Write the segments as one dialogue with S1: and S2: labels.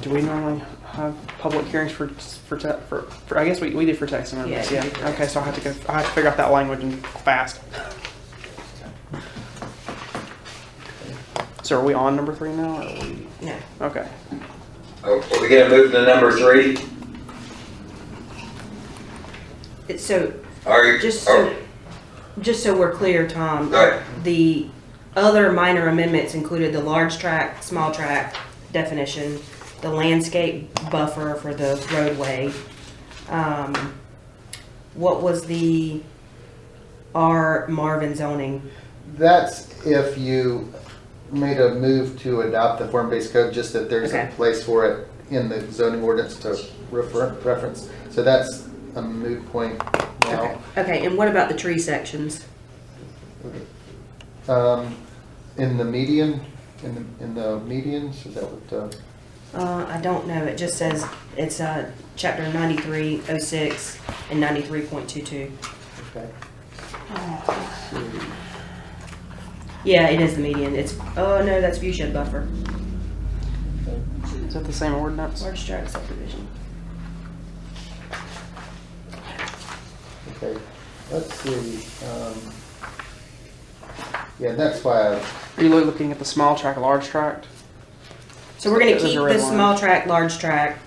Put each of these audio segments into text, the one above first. S1: Do we normally have public hearings for, for, te- for, for, I guess we, we did for text amendments,
S2: Yeah,
S1: yeah.
S2: you did for
S1: Okay, so I have to go, I have to figure out that language and fast. So are we on number three now? or are we-
S2: No.
S1: Okay.
S3: Are are we gonna move to number three?
S2: It's So,
S3: Are,
S2: just
S3: are,
S2: so, just so we're clear, Tom,
S3: Oh. Right.
S2: the other minor amendments included the large tract, small tract definition, the landscape buffer for the roadway. Um, What was the R Marvin zoning?
S4: That's if you made a move to adopt the form-based code, just that there's a
S2: Okay.
S4: place for it in the zoning ordinance to refer, reference. So that's a moot point now.
S2: Okay, and what about the tree sections?
S4: Um, in the median, in the, in the medians, is that what, uh,
S2: Uh, I don't know, it just says, it's, uh, chapter ninety-three oh six and ninety-three point two-two.
S4: okay.
S2: Yeah, it is the median, it's, oh no, that's view shed buffer,
S1: Is that the same ordinance?
S2: large tract subdivision.
S4: Okay, let's see, um, yeah, that's why I
S1: Are you looking at the small tract, large tract?
S2: So we're gonna
S1: Those are
S2: keep
S1: red
S2: the small tract, large tract.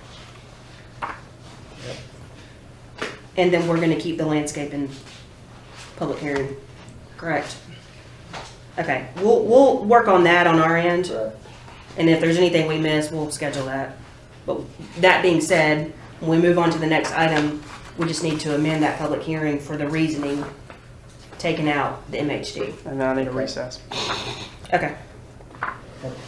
S2: And then we're gonna keep the landscape in public hearing, correct? Okay, we'll, we'll work on that on our end.
S4: Right.
S2: And if there's anything we miss, we'll schedule that. But that being said, when we move on to the next item, we just need to amend that public hearing for the reasoning, taking out the MHD.
S1: And then I need a recess.
S2: Okay,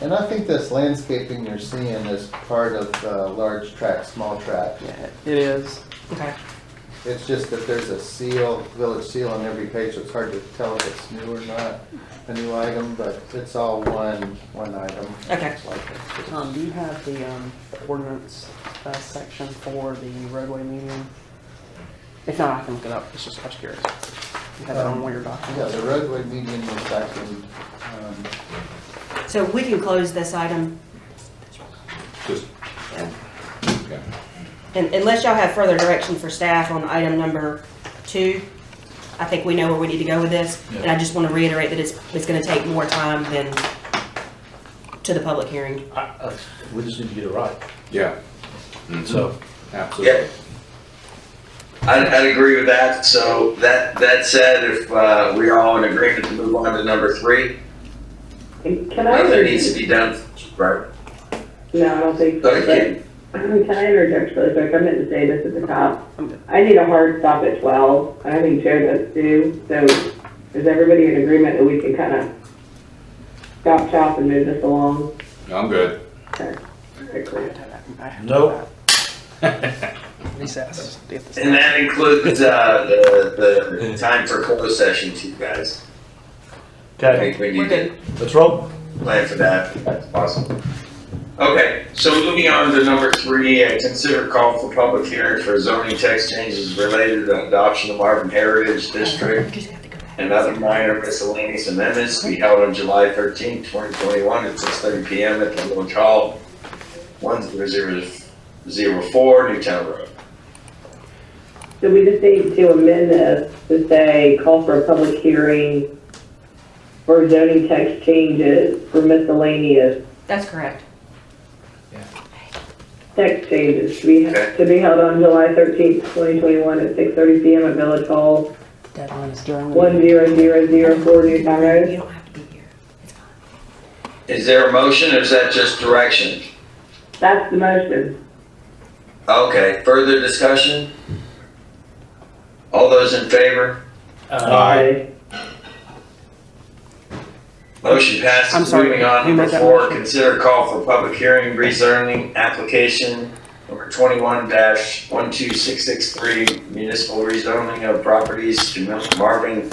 S4: And I think this landscaping you're seeing is part of the large tract, small tract.
S1: Yeah, it is.
S2: okay.
S4: It's just that there's a seal, village seal on every page, so it's hard to tell if it's new or not, a new item, but it's all one, one item.
S2: Okay.
S4: It's like it's just-
S1: Tom, do you have the, um, ordinance, uh, section for the roadway median? If not, I can look it up. It's just, I was curious. You have it on one of your
S4: Yeah,
S1: documents?
S4: the roadway median was back in, um,
S2: So we can close this item.
S5: Just,
S2: Yeah.
S5: yeah.
S2: And unless y'all have further direction for staff on item number two, I think we know where we need to go with this. And I just want to reiterate that it's, it's going to take more time than to the public hearing.
S6: I- I- We just need to get it right,
S5: Yeah,
S6: so.
S5: absolutely.
S3: yeah. I'd, I'd agree with that, so that, that said, if, uh, we're all in agreement to move on to number three,
S7: Can I,
S3: nothing
S7: inter-
S3: needs to be done, right?
S7: no, I don't think so,
S3: Okay.
S7: but, can I interject really quick, I meant to say this at the top.
S1: I'm good.
S7: I need a hard stop at twelve, and I think Joe does too, so is everybody in agreement that we can kind of stop shop and move this along?
S5: I'm good.
S7: Okay, cool.
S1: I have
S6: Nope.
S1: Recess. to get this
S3: And
S1: done.
S3: that includes, uh, the, the time for closed sessions, you guys. I
S6: Okay,
S3: think we
S2: We're
S3: need
S2: good.
S3: to
S6: let's roll.
S3: plan for that, if that's possible. Okay, so moving on to number three, uh, consider call for public hearing for zoning text changes related to adoption of Marvin Heritage District
S2: We just have to go back.
S3: and other minor miscellaneous amendments to be held on July 13, 2021 at 6:30 PM at the Village Hall, 1004 Newtown Road.
S7: So we just need to amend this to say, call for a public hearing for zoning text changes for miscellaneous
S2: That's correct.
S7: Text changes to be,
S3: Okay.
S7: to be held on July thirteenth, twenty twenty-one at six thirty PM at Village Hall,
S2: Deadline is.
S1: During the-
S7: one zero zero zero four Newtown Road.
S2: You don't have to be here. It's fine.
S3: Is there a motion or is that just direction?
S7: That's the motion.
S3: Okay, further discussion? All those in favor?
S7: Aye.
S3: Motion passes.
S1: I'm sorry,
S3: Moving on,
S1: who made
S3: number
S1: that
S3: four,
S1: motion?
S3: consider call for public hearing rezoning application number twenty-one one two six six three municipal rezoning of properties to Mount Marvin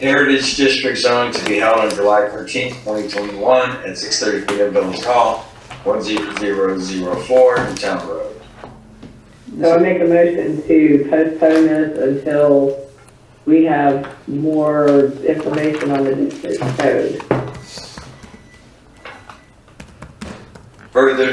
S3: Heritage District Zone to be held on July thirteenth, twenty twenty-one at six thirty P M Village Hall, one zero zero zero four Town Road.
S7: So I make a motion to postpone this until we have more information on the district code.
S3: Further